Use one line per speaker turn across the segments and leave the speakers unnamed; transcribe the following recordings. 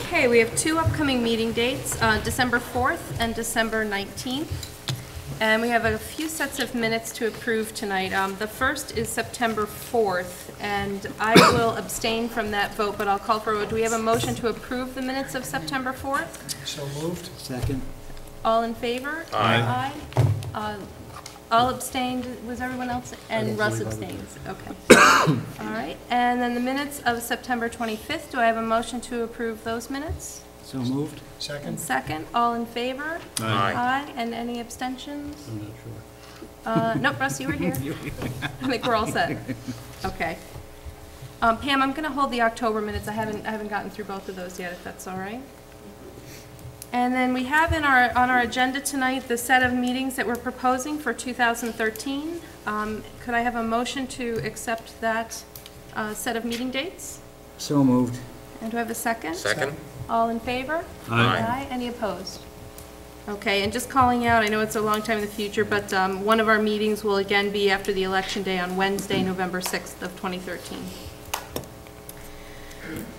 Okay, we have two upcoming meeting dates, uh, December 4th and December 19th. And we have a few sets of minutes to approve tonight. Um, The first is September 4th, and I will abstain from that vote, but I'll call for, do we have a motion to approve the minutes of September 4th?
So moved.
Second?
All in favor? Aye. Aye. All abstained, was everyone else, and Russ abstains, okay. All right, and then the minutes of September 25th, do I have a motion to approve those minutes?
So moved?
And
Second?
second, all in favor?
Aye.
Aye, and any abstentions? Uh, Nope, Russ, you were here. I think we're all set. Okay. Um, Pam, I'm going to hold the October minutes. I haven't, I haven't gotten through both of those yet, if that's all right. And then we have in our, on our agenda tonight, the set of meetings that we're proposing for 2013. Um, Could I have a motion to accept that uh, set of meeting dates?
So moved.
And do I have a second?
Second?
All in favor?
Aye.
Any opposed? Okay, and just calling out, I know it's a long time in the future, but um, one of our meetings will again be after the Election Day on Wednesday, November 6th of 2013.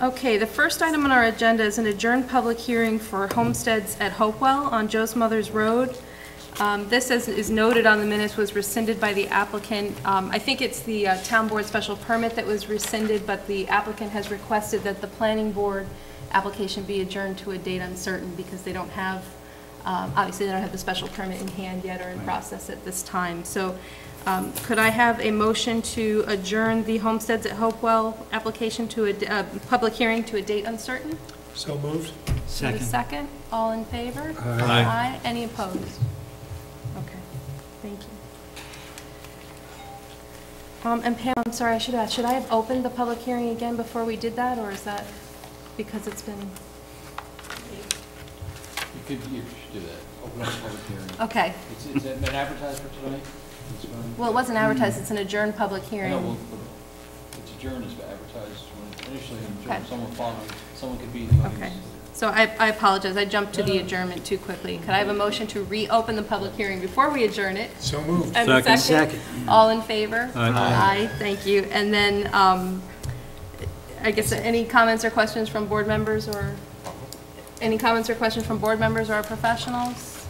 Okay, the first item on our agenda is an adjourned public hearing for homesteads at Hopewell on Joe's Mother's Road. Um, This, as is noted on the minutes, was rescinded by the applicant. Um, I think it's the uh, town board special permit that was rescinded, but the applicant has requested that the planning board application be adjourned to a date uncertain because they don't have, um, obviously, they don't have the special permit in hand yet or in process at this time. So um, could I have a motion to adjourn the Homesteads at Hopewell application to a, d- uh, public hearing to a date uncertain?
So moved.
Do I have a
Second?
second? All in favor? Aye. Any opposed? Okay, thank you. Um, and Pam, I'm sorry, I should ask, should I have opened the public hearing again before we did that, or is that because it's been,
You could, you should do that, open up a public hearing.
okay.
It's, it's been advertised for tonight? It's been-
Well, it wasn't advertised, it's an adjourned public
I know, well,
hearing.
it's adjourned, it's advertised when initially
Okay.
adjourned, someone followed, someone could be in the
Okay,
audience.
so I, I apologize, I jumped to the adjournment too quickly. Could I have a motion to reopen the public hearing before we adjourn it?
So moved.
And a second,
Second.
all in favor?
Aye.
thank you. And then, um, I guess, any comments or questions from board members or, any comments or questions from board members or our professionals?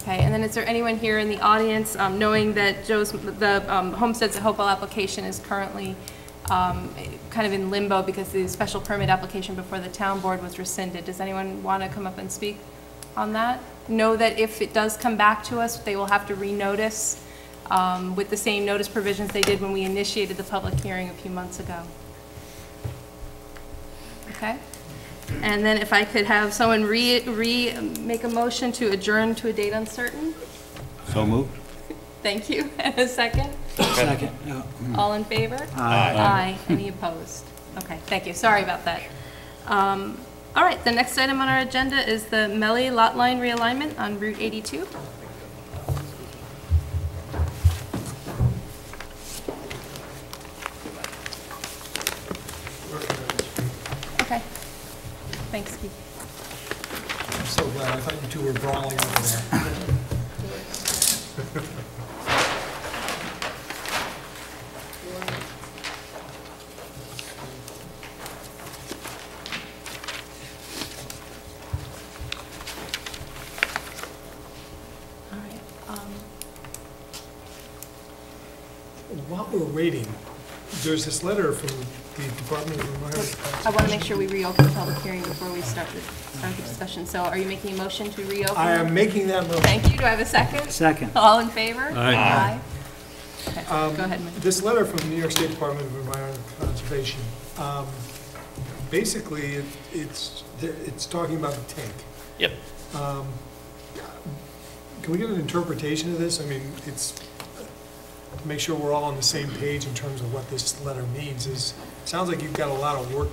Okay, and then is there anyone here in the audience, um, knowing that Joe's, the um, Homesteads at Hopewell application is currently um, kind of in limbo because the special permit application before the town board was rescinded? Does anyone want to come up and speak on that? Know that if it does come back to us, they will have to renotice um, with the same notice provisions they did when we initiated the public hearing a few months ago. Okay? And then if I could have someone re, re, make a motion to adjourn to a date uncertain?
So moved?
Thank you. And a second?
Second. Oh, No.
All in favor? Aye. Any opposed? Okay, thank you. Sorry about that. Um, All right, the next item on our agenda is the Melly Lot Line Realignment on Route 82. Okay. Thanks, Keith.
I'm so glad. I thought you two were brawling over there.
All right. um,
While we're waiting, there's this letter from the Department of Environment.
I want to make sure we reopen the public hearing before we start the, start the discussion. So are you making a motion to reopen?
I am making that motion.
Thank you. Do I have a second?
Second.
All in favor?
Aye.
Okay,
Um,
Go ahead, Mike.
This letter from the New York State Department of Environmental Conservation, um, basically, it- it's, it's talking about the tank.
Yep.
Um, Can we get an interpretation of this? I mean, it's, to make sure we're all on the same page in terms of what this letter means, is, it sounds like you've got a lot of work